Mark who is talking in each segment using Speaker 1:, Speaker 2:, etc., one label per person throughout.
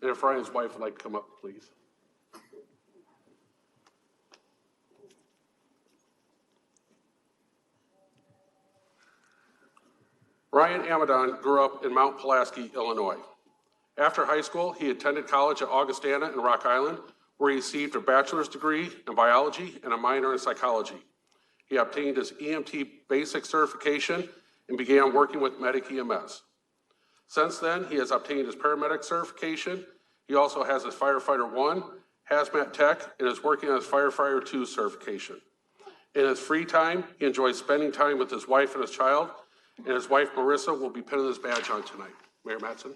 Speaker 1: And if Ryan's wife would like to come up, please. Ryan Amadon grew up in Mount Pulaski, Illinois. After high school, he attended college at Augustana in Rock Island, where he received a bachelor's degree in biology and a minor in psychology. He obtained his EMT basic certification and began working with Medic E EMS. Since then, he has obtained his paramedic certification. He also has his firefighter one, hazmat tech, and is working on his firefighter two certification. In his free time, he enjoys spending time with his wife and his child, and his wife Marissa will be pinning his badge on tonight. Mayor Matson?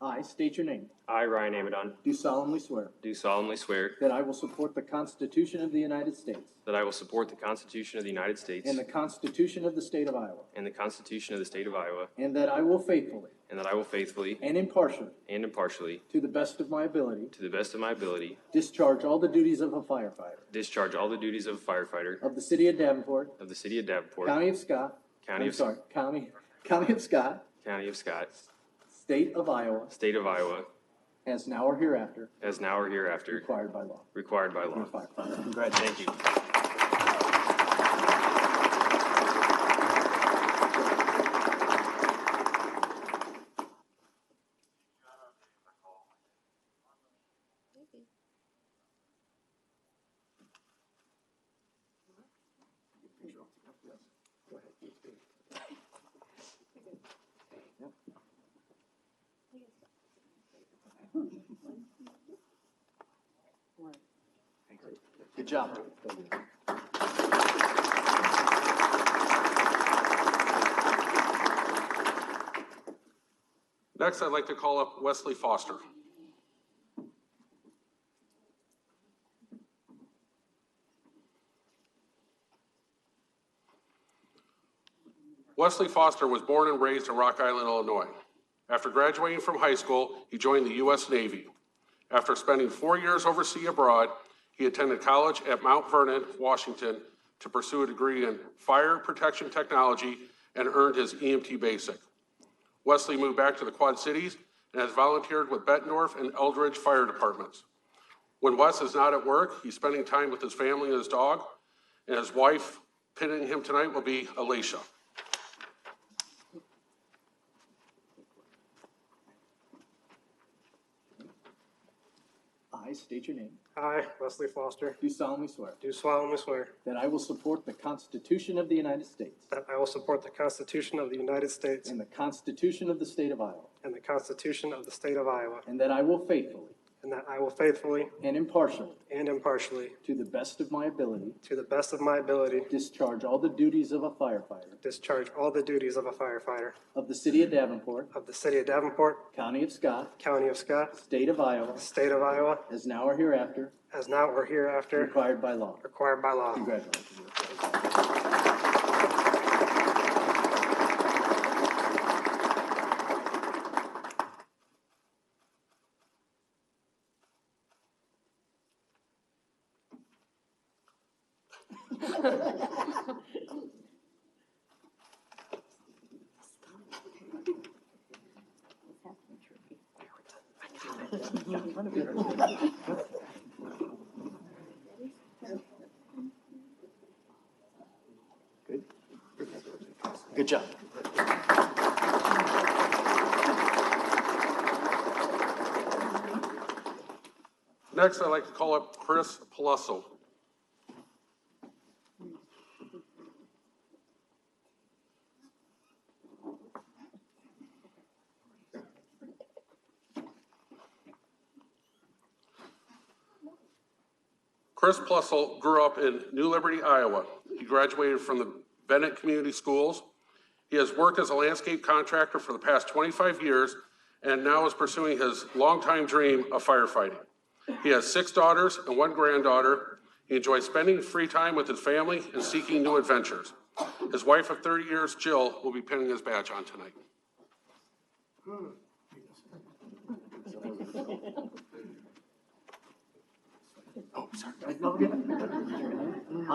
Speaker 2: I state your name.
Speaker 3: I, Ryan Amadon,
Speaker 2: Do solemnly swear
Speaker 3: do solemnly swear
Speaker 2: that I will support the Constitution of the United States
Speaker 3: that I will support the Constitution of the United States
Speaker 2: and the Constitution of the State of Iowa,
Speaker 3: and the Constitution of the State of Iowa,
Speaker 2: and that I will faithfully
Speaker 3: and that I will faithfully
Speaker 2: and impartially,
Speaker 3: and impartially,
Speaker 2: to the best of my ability,
Speaker 3: to the best of my ability,
Speaker 2: discharge all the duties of a firefighter
Speaker 3: discharge all the duties of a firefighter
Speaker 2: of the City of Davenport,
Speaker 3: of the City of Davenport,
Speaker 2: County of Scott.
Speaker 3: County
Speaker 2: I'm
Speaker 3: of-
Speaker 2: sorry, County, County of Scott,
Speaker 3: County of Scott,
Speaker 2: State of Iowa,
Speaker 3: State of Iowa,
Speaker 2: as now or hereafter
Speaker 3: as now or hereafter
Speaker 2: required by law.
Speaker 3: required by law.
Speaker 2: Firefighter.
Speaker 3: Thank you.
Speaker 2: Good job.
Speaker 1: Next, I'd like to call up Wesley Foster. Wesley Foster was born and raised in Rock Island, Illinois. After graduating from high school, he joined the U.S. Navy. After spending four years overseas abroad, he attended college at Mount Vernon, Washington, to pursue a degree in fire protection technology and earned his EMT basic. Wesley moved back to the Quad Cities and has volunteered with Bettendorf and Eldridge Fire Departments. When Wes is not at work, he's spending time with his family and his dog, and his wife pinning him tonight will be Alicia.
Speaker 2: I state your name.
Speaker 4: I, Wesley Foster,
Speaker 2: Do solemnly swear
Speaker 4: do solemnly swear
Speaker 2: that I will support the Constitution of the United States
Speaker 4: that I will support the Constitution of the United States
Speaker 2: and the Constitution of the State of Iowa,
Speaker 4: and the Constitution of the State of Iowa,
Speaker 2: and that I will faithfully
Speaker 4: and that I will faithfully
Speaker 2: and impartially,
Speaker 4: and impartially,
Speaker 2: to the best of my ability,
Speaker 4: to the best of my ability,
Speaker 2: discharge all the duties of a firefighter
Speaker 4: discharge all the duties of a firefighter
Speaker 2: of the City of Davenport,
Speaker 4: of the City of Davenport,
Speaker 2: County of Scott,
Speaker 4: County of Scott,
Speaker 2: State of Iowa,
Speaker 4: State of Iowa,
Speaker 2: as now or hereafter
Speaker 4: as now or hereafter
Speaker 2: required by law.
Speaker 4: required by law.
Speaker 2: Congratulations. Good job.
Speaker 1: Next, I'd like to call up Chris Paluso. Chris Plussel grew up in New Liberty, Iowa. He graduated from the Bennett Community Schools. He has worked as a landscape contractor for the past 25 years and now is pursuing his longtime dream of firefighting. He has six daughters and one granddaughter. He enjoys spending free time with his family and seeking new adventures. His wife of 30 years, Jill, will be pinning his badge on tonight.